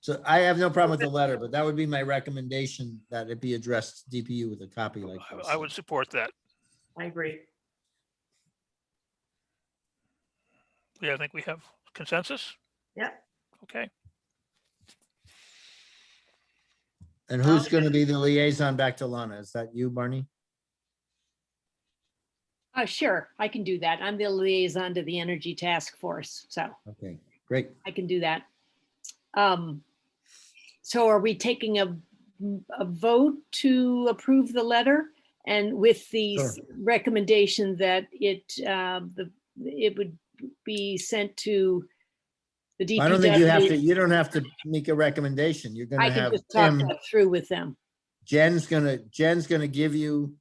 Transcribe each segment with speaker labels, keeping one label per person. Speaker 1: So I have no problem with the letter, but that would be my recommendation that it be addressed to DPU with a copy like
Speaker 2: I-
Speaker 1: this.
Speaker 2: I would support that.
Speaker 3: I agree.
Speaker 2: Yeah, I think we have consensus.
Speaker 3: Yeah.
Speaker 2: Okay,
Speaker 1: And who's going to be the liaison back to Lana? Is that you, Barney?
Speaker 4: Uh, sure, I can do that. I'm the liaison to the Energy Task Force, so
Speaker 1: Okay, great.
Speaker 4: I can do that. Um, so are we taking a, a vote to approve the letter? And with the s- recommendation that it, um, the, it would be sent to the DPW?
Speaker 1: I don't think you have to, you don't have to make a recommendation. You're
Speaker 4: I
Speaker 1: going to
Speaker 4: can
Speaker 1: have
Speaker 4: just talk
Speaker 1: Tim,
Speaker 4: that through with them.
Speaker 1: Jen's going to, Jen's going to give you,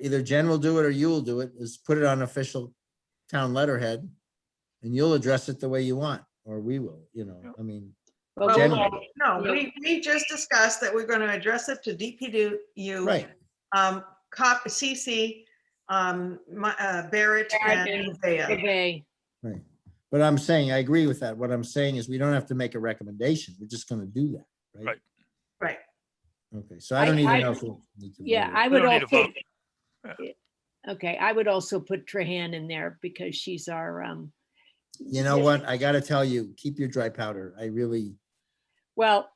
Speaker 1: either Jen will do it or you will do it, is put it on official town letterhead. And you'll address it the way you want, or we will, you know, I mean,
Speaker 4: Well,
Speaker 1: Jen-
Speaker 3: Well, No,
Speaker 4: Yeah.
Speaker 3: we, we just discussed that we're going to address it to DPW.
Speaker 1: right.
Speaker 3: Um, cop, CC, um, my, uh, Barrett
Speaker 4: Barrett and
Speaker 3: and Zaya.
Speaker 4: Okay,
Speaker 1: Right. But I'm saying, I agree with that. What I'm saying is we don't have to make a recommendation. We're just gonna do that, right?
Speaker 2: Right.
Speaker 3: Right.
Speaker 1: Okay, so I don't
Speaker 4: I-
Speaker 1: even
Speaker 4: I-
Speaker 1: know. if we'll need to
Speaker 4: yeah,
Speaker 1: vote.
Speaker 4: I
Speaker 2: we
Speaker 4: would
Speaker 2: don't need a
Speaker 4: also,
Speaker 2: vote.
Speaker 4: okay, I would also put Trahan in there because she's our, um,
Speaker 1: You know what? I gotta tell you, keep your dry powder. I really,
Speaker 4: Well,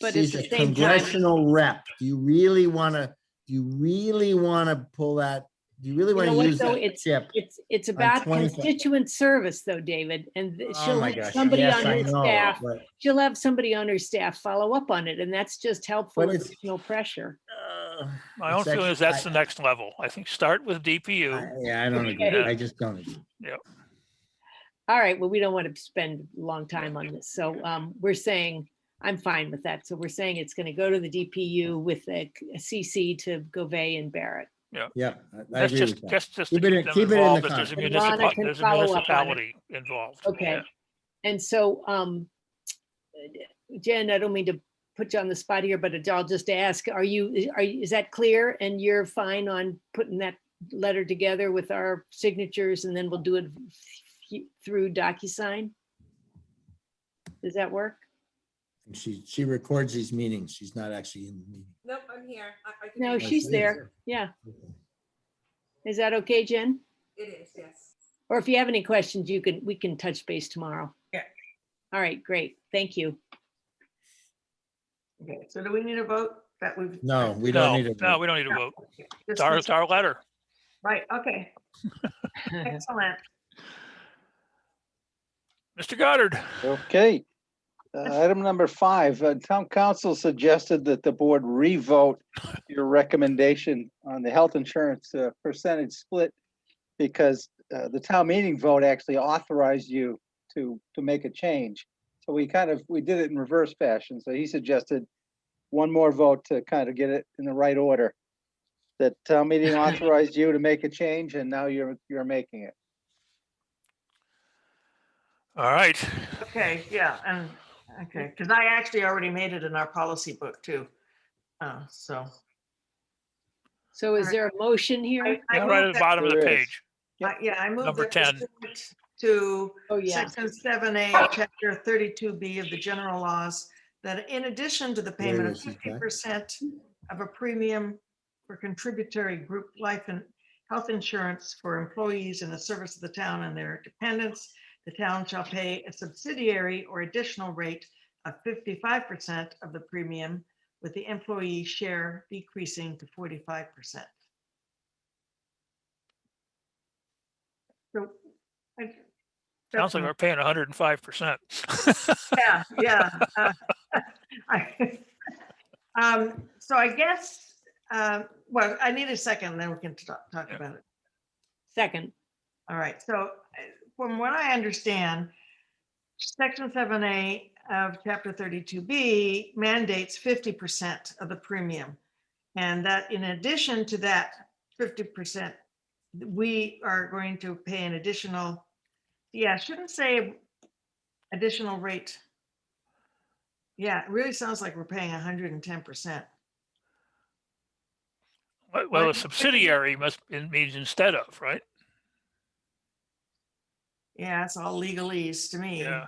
Speaker 4: but at
Speaker 1: she's
Speaker 4: the
Speaker 1: a
Speaker 4: same time,
Speaker 1: congressional rep. Do you really wanna, do you really wanna pull that? Do you really
Speaker 4: You know
Speaker 1: wanna
Speaker 4: what,
Speaker 1: use
Speaker 4: though?
Speaker 1: that
Speaker 4: It's-
Speaker 1: chip?
Speaker 4: it's, it's about
Speaker 1: 25.
Speaker 4: constituent service though, David, and th-
Speaker 1: Oh
Speaker 4: she'll
Speaker 1: my
Speaker 4: have
Speaker 1: gosh,
Speaker 4: somebody
Speaker 1: yes,
Speaker 4: on
Speaker 1: I
Speaker 4: her
Speaker 1: know,
Speaker 4: staff,
Speaker 1: but-
Speaker 4: she'll have somebody on her staff follow up on it, and that's just helpful,
Speaker 1: But it's-
Speaker 4: additional pressure.
Speaker 1: Ugh,
Speaker 4: uh,
Speaker 2: My own
Speaker 1: it's actu-
Speaker 2: feeling is that's
Speaker 1: I-
Speaker 2: the next level. I think start with
Speaker 1: I-
Speaker 2: DPU.
Speaker 1: uh, Yeah, I don't agree.
Speaker 4: Okay.
Speaker 1: I just don't. agree.
Speaker 4: All right, well, we don't want to spend a long time on this, so um, we're saying, I'm fine with that, so we're saying it's going to go to the DPU with a c- a CC to Govey and Barrett.
Speaker 1: Yeah, I- I
Speaker 2: That's
Speaker 1: agree
Speaker 2: just,
Speaker 1: with that.
Speaker 2: that's just to
Speaker 1: Keep
Speaker 2: keep
Speaker 1: it
Speaker 2: them
Speaker 1: in- keep it in the
Speaker 2: involved. that There's a
Speaker 1: contract.
Speaker 4: And Lana
Speaker 2: municipal-
Speaker 4: can
Speaker 2: there's a
Speaker 4: follow up on it.
Speaker 2: municipality involved.
Speaker 4: Okay.
Speaker 2: Yeah.
Speaker 4: And so, um, Jen, I don't mean to put you on the spot here, but I'll just ask, are you, are, you- is that clear? And you're fine on putting that letter together with our signatures and then we'll do it through DocuSign? Does that work?
Speaker 1: She, she records these meetings. She's not actually in the meeting.
Speaker 5: Nope, I'm here. I- I can
Speaker 4: No,
Speaker 5: hear
Speaker 1: she
Speaker 5: you.
Speaker 4: Oh, she's
Speaker 1: is.
Speaker 4: there. Yeah. Is that okay, Jen?
Speaker 5: It is, yes.
Speaker 4: Or if you have any questions, you can, we can touch base tomorrow.
Speaker 3: Yeah.
Speaker 4: All right, great. Thank you.
Speaker 3: Okay, So do we need a vote that we've?
Speaker 1: No, we
Speaker 2: No,
Speaker 1: don't need
Speaker 2: no,
Speaker 1: to.
Speaker 2: we don't need a vote. It's
Speaker 3: Just-
Speaker 2: our, it's our letter.
Speaker 3: Right, okay, excellent.
Speaker 2: Mr. Goddard,
Speaker 6: Okay. Uh, Item number five, uh, town council suggested that the board revote your recommendation on the health insurance uh, percentage split because uh, the town meeting vote actually authorized you to, to make a change. So we kind of, we did it in reverse fashion. So he suggested one more vote to kind of get it in the right order. That town meeting authorized you to make a change and now you're, you're making it.
Speaker 2: all right.
Speaker 3: Okay, yeah, and, okay, because I actually already made it in our policy book too. Uh, so.
Speaker 4: So is there a motion
Speaker 3: I-
Speaker 4: here?
Speaker 3: I
Speaker 2: Right at
Speaker 3: move
Speaker 2: the
Speaker 3: that-
Speaker 2: bottom of the
Speaker 6: There is.
Speaker 2: page.
Speaker 3: I- Yeah, I moved.
Speaker 2: Number 10.
Speaker 3: To
Speaker 4: Oh, yeah.
Speaker 3: Section seven A, of chapter thirty-two B of the general laws, that in addition to the payment of
Speaker 1: is it,
Speaker 3: fifty
Speaker 1: Jack?
Speaker 3: percent of a premium for contributory group life and health insurance for employees in the service of the town and their dependents, the town shall pay a subsidiary or additional rate of fifty-five percent of the premium, with the employee share decreasing to forty-five percent. So. I-
Speaker 2: Sounds
Speaker 3: that's my-
Speaker 2: like we're paying hundred and five percent.
Speaker 3: yeah, yeah. uh, I- Um, so I guess, uh, well, I need a second, then we can talk, talk
Speaker 2: Yeah.
Speaker 3: about it.
Speaker 4: Second.
Speaker 3: All right, so uh, from what I understand, section seven A of chapter thirty-two B mandates fifty percent of the premium. And that in addition to that fifty percent, we are going to pay an additional, yeah, I shouldn't say additional rate. Yeah, it really sounds like we're paying hundred and ten percent.
Speaker 2: Well, a subsidiary must, it means instead of, right?
Speaker 3: Yeah, it's all legalese to me.
Speaker 2: Yeah.